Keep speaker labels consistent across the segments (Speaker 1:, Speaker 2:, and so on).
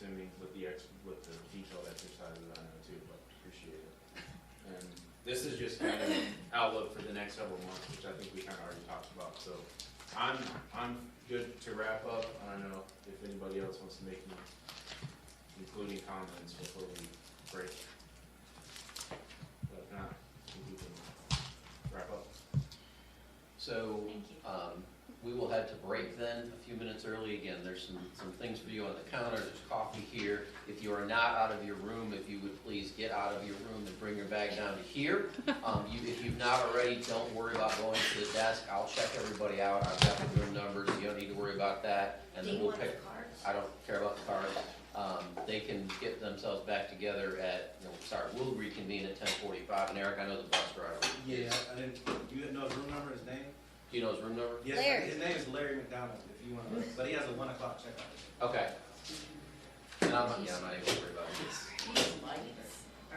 Speaker 1: to me with the ex, with the detailed exercises I know too, but appreciate it. And this is just kind of outlook for the next several months, which I think we kind of already talked about, so I'm, I'm good to wrap up. I don't know if anybody else wants to make any including comments before we break. But if not, I think we can wrap up.
Speaker 2: So,
Speaker 3: Thank you.
Speaker 2: um, we will head to break then, a few minutes early. Again, there's some, some things for you on the counter, there's coffee here. If you are not out of your room, if you would please get out of your room and bring your bag down to here. Um, you, if you've not already, don't worry about going to the desk. I'll check everybody out. I've got the room numbers, you don't need to worry about that. And
Speaker 3: Do
Speaker 2: then
Speaker 3: you
Speaker 2: we'll
Speaker 3: want the
Speaker 2: pick,
Speaker 3: cards?
Speaker 2: I don't care about the cards. Um, they can get themselves back together at, no, sorry, we'll reconvene at ten forty-five. And Eric, I know the bus driver.
Speaker 4: Yeah, I didn't, you didn't know his room number, his name?
Speaker 2: Do you know his room number?
Speaker 4: Yes,
Speaker 5: Larry.
Speaker 4: His name is Larry McDonald, if you wanna, but he has a one o'clock checkout.
Speaker 2: Okay. And I'm, yeah, I'm not even worried about it.
Speaker 3: These lights are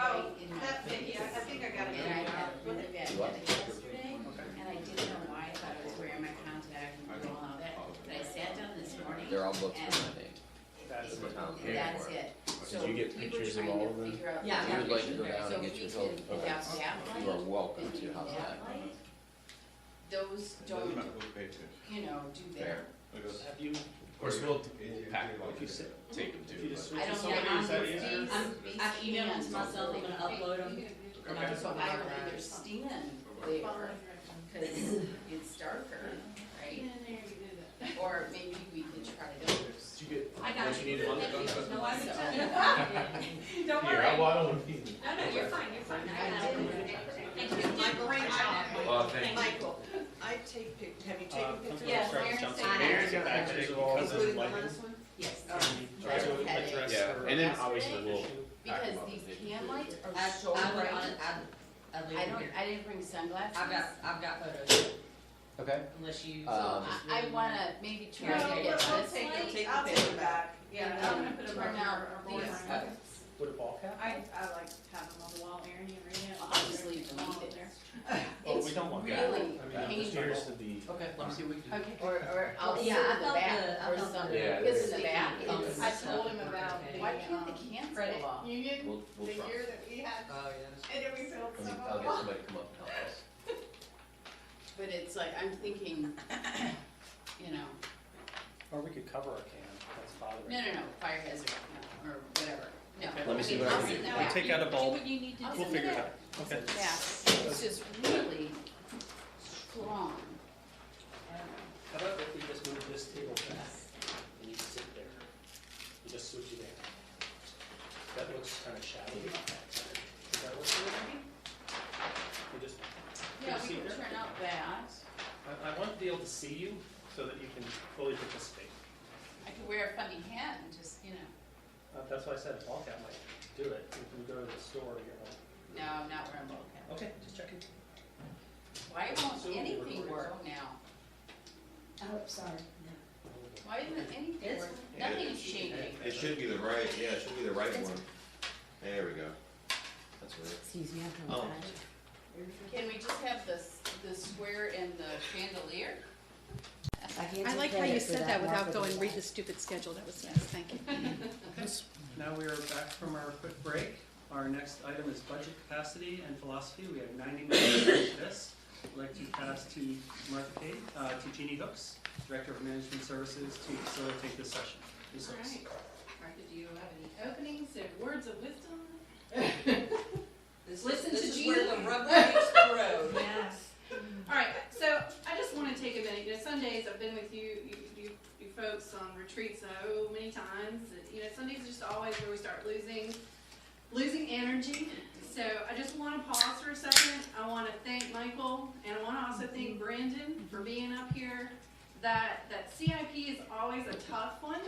Speaker 6: Oh,
Speaker 3: bright in my
Speaker 6: that's it, yeah, I think I got it.
Speaker 3: And I had really bad
Speaker 2: What?
Speaker 3: headache yesterday, and I didn't know why, I thought I was wearing my contact and all of that, but I sat down this morning.
Speaker 2: They're all booked for my name.
Speaker 4: That's
Speaker 3: it-
Speaker 2: what I'm here
Speaker 3: That's
Speaker 2: for.
Speaker 3: it. So
Speaker 1: Did you get
Speaker 3: we were
Speaker 1: pictures of
Speaker 3: trying to
Speaker 1: all of them?
Speaker 3: figure out the
Speaker 6: Yeah.
Speaker 2: You would like to go
Speaker 3: picture.
Speaker 2: down and
Speaker 3: So
Speaker 2: get
Speaker 3: if
Speaker 2: your
Speaker 3: we
Speaker 2: total.
Speaker 3: can pick out that
Speaker 2: You are
Speaker 3: light,
Speaker 2: welcome
Speaker 3: and
Speaker 2: to,
Speaker 3: do
Speaker 2: how's that?
Speaker 3: that light, those don't, you know, do that.
Speaker 2: Fair.
Speaker 1: Have you, of course, we'll, we'll pack it like you said, take them
Speaker 7: If you
Speaker 1: too.
Speaker 7: just
Speaker 1: but-
Speaker 3: I
Speaker 7: switch to
Speaker 3: don't get
Speaker 7: somebody,
Speaker 3: on these,
Speaker 7: is that easier?
Speaker 3: these, these
Speaker 6: I've emailed them
Speaker 3: scans.
Speaker 6: to myself, I'm gonna upload them.
Speaker 3: And I don't I don't either stand there, cause it's darker, right? Or maybe we can try those.
Speaker 1: Did you get
Speaker 6: I got
Speaker 1: what you
Speaker 6: you.
Speaker 1: needed on the gun?
Speaker 6: No, I
Speaker 3: So-
Speaker 6: Don't
Speaker 1: Here, I,
Speaker 6: worry.
Speaker 1: well, I don't want to be.
Speaker 6: No, no, you're fine, you're fine. I
Speaker 3: I
Speaker 6: got it.
Speaker 3: did.
Speaker 6: Thank you. Did a great job.
Speaker 1: Oh, thank you.
Speaker 8: Michael, I take pic, have you
Speaker 7: Uh,
Speaker 8: taken
Speaker 7: come to
Speaker 8: pictures?
Speaker 7: the
Speaker 6: Yes,
Speaker 7: service
Speaker 6: Aaron
Speaker 7: council.
Speaker 6: said-
Speaker 1: Aaron's got pictures of all of them.
Speaker 8: Including the last one?
Speaker 3: Yes,
Speaker 8: Um,
Speaker 7: Try to
Speaker 3: Yeah.
Speaker 7: address
Speaker 1: Yeah,
Speaker 7: her
Speaker 1: and then obviously
Speaker 7: issue.
Speaker 1: we'll.
Speaker 3: because these can lights are
Speaker 8: I'm
Speaker 3: so
Speaker 8: so
Speaker 3: bright.
Speaker 8: I
Speaker 3: I don't, I didn't bring sunglasses.
Speaker 8: I've got, I've got photos,
Speaker 2: Okay.
Speaker 8: unless you.
Speaker 2: Um,
Speaker 3: I, I wanna maybe
Speaker 6: No,
Speaker 3: try to
Speaker 6: we'll,
Speaker 3: get
Speaker 6: we'll
Speaker 3: this
Speaker 6: take,
Speaker 3: light.
Speaker 6: I'll take it back. Yeah, I'm gonna put them
Speaker 3: Turn
Speaker 6: right
Speaker 3: out
Speaker 6: now.
Speaker 3: these
Speaker 6: I,
Speaker 7: Would a ball cap?
Speaker 6: I like have them on the wall, Aaron, you read it.
Speaker 3: I'll just leave them
Speaker 6: All
Speaker 3: up there.
Speaker 7: Well,
Speaker 3: It's
Speaker 7: Oh, we don't want that.
Speaker 3: really
Speaker 7: I mean, I'm just
Speaker 3: painful.
Speaker 7: curious to be.
Speaker 2: Okay, let me see what we can do.
Speaker 3: Okay, or, or I'll sit in
Speaker 8: Oh, Yeah, I
Speaker 3: the
Speaker 8: felt
Speaker 3: back
Speaker 8: the- I
Speaker 3: or
Speaker 8: felt the-
Speaker 3: something,
Speaker 1: Yeah,
Speaker 3: because
Speaker 1: it's-
Speaker 3: in the back,
Speaker 2: Yeah.
Speaker 3: it's-
Speaker 6: I told him about the,
Speaker 3: why can't the
Speaker 6: um,
Speaker 3: cans
Speaker 6: credit
Speaker 3: fall off?
Speaker 6: union,
Speaker 2: We'll,
Speaker 6: the
Speaker 2: we'll try.
Speaker 6: year that we had,
Speaker 8: Oh,
Speaker 6: and then we filled
Speaker 2: Let me-
Speaker 6: some
Speaker 2: I'll
Speaker 6: of
Speaker 2: get
Speaker 6: them.
Speaker 2: somebody to come up and help us.
Speaker 3: But it's like, I'm thinking, you know,
Speaker 7: Or we could cover our can, that's bothering.
Speaker 3: no, no, no, fire hazard, no, or whatever, no.
Speaker 2: Let me see what I
Speaker 3: I'll
Speaker 2: can
Speaker 3: sit
Speaker 2: do.
Speaker 3: in the
Speaker 7: I'll
Speaker 3: back.
Speaker 7: take out a bulb.
Speaker 3: Do what you need to do.
Speaker 7: We'll figure it out. Okay.
Speaker 3: Yeah, it's just really strong. I don't know.
Speaker 7: How about if we just move this table back and you sit there? You just switch it in. That looks kind of shabby. Does that work for you? You just,
Speaker 3: Yeah,
Speaker 7: Can you
Speaker 3: we
Speaker 7: see
Speaker 3: can
Speaker 7: there?
Speaker 3: turn out that,
Speaker 7: I, I want to be able to see you so that you can fully participate.
Speaker 3: I could wear a funny hat and just, you know,
Speaker 7: Uh, that's why I said a ball cap might do it. You can go to the store, you know.
Speaker 3: no, I'm not wearing a ball cap.
Speaker 7: Okay, just checking.
Speaker 3: Why
Speaker 7: So
Speaker 3: won't
Speaker 7: we're
Speaker 3: anything
Speaker 7: recording.
Speaker 3: work now?
Speaker 8: Oh, sorry.
Speaker 3: Why isn't anything
Speaker 8: It's-
Speaker 3: work? Nothing's changing.
Speaker 9: It should be the right, yeah, it should be the right one. There we go.
Speaker 2: That's weird.
Speaker 8: Excuse me, I
Speaker 2: Oh.
Speaker 3: Can we just have the, s- the square and the chandelier?
Speaker 8: I like how you said that without going read this.
Speaker 6: stupid schedule, that was nice, thank you.
Speaker 7: Yes, now we are back from our quick break. Our next item is budget capacity and philosophy. We have ninety minutes to finish this. I'd like to pass to Martha Kay, uh, to Jeannie Hooks, Director of Management Services, to facilitate this session. Ms. Hooks.
Speaker 6: Alright, Martha, do you have any openings or words of wisdom? Listen to
Speaker 8: This is where
Speaker 6: Jeannie.
Speaker 8: the rubber meets the road.
Speaker 6: Yes. Alright, so I just wanna take a minute, you know, Sundays, I've been with you, you, you, you folks on retreats so many times, and, you know, Sundays are just always where we start losing, losing energy. So I just wanna pause for a second, I wanna thank Michael, and I wanna also thank Brandon for being up here. That, that CIP is always a tough one,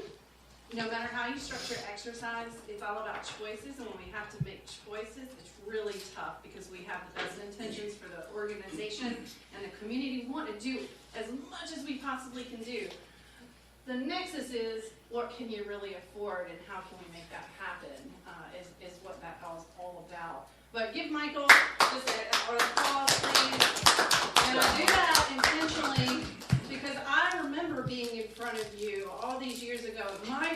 Speaker 6: no matter how you structure exercise, it's all about choices, and when we have to make choices, it's really tough, because we have the best intentions for the organization and the community, We want to do as much as we possibly can do. The nexus is, what can you really afford, and how can we make that happen, uh, is, is what that all is all about. But give Michael just a, a applause, please, and I do that intentionally, because I remember being in front of you all these years ago, with my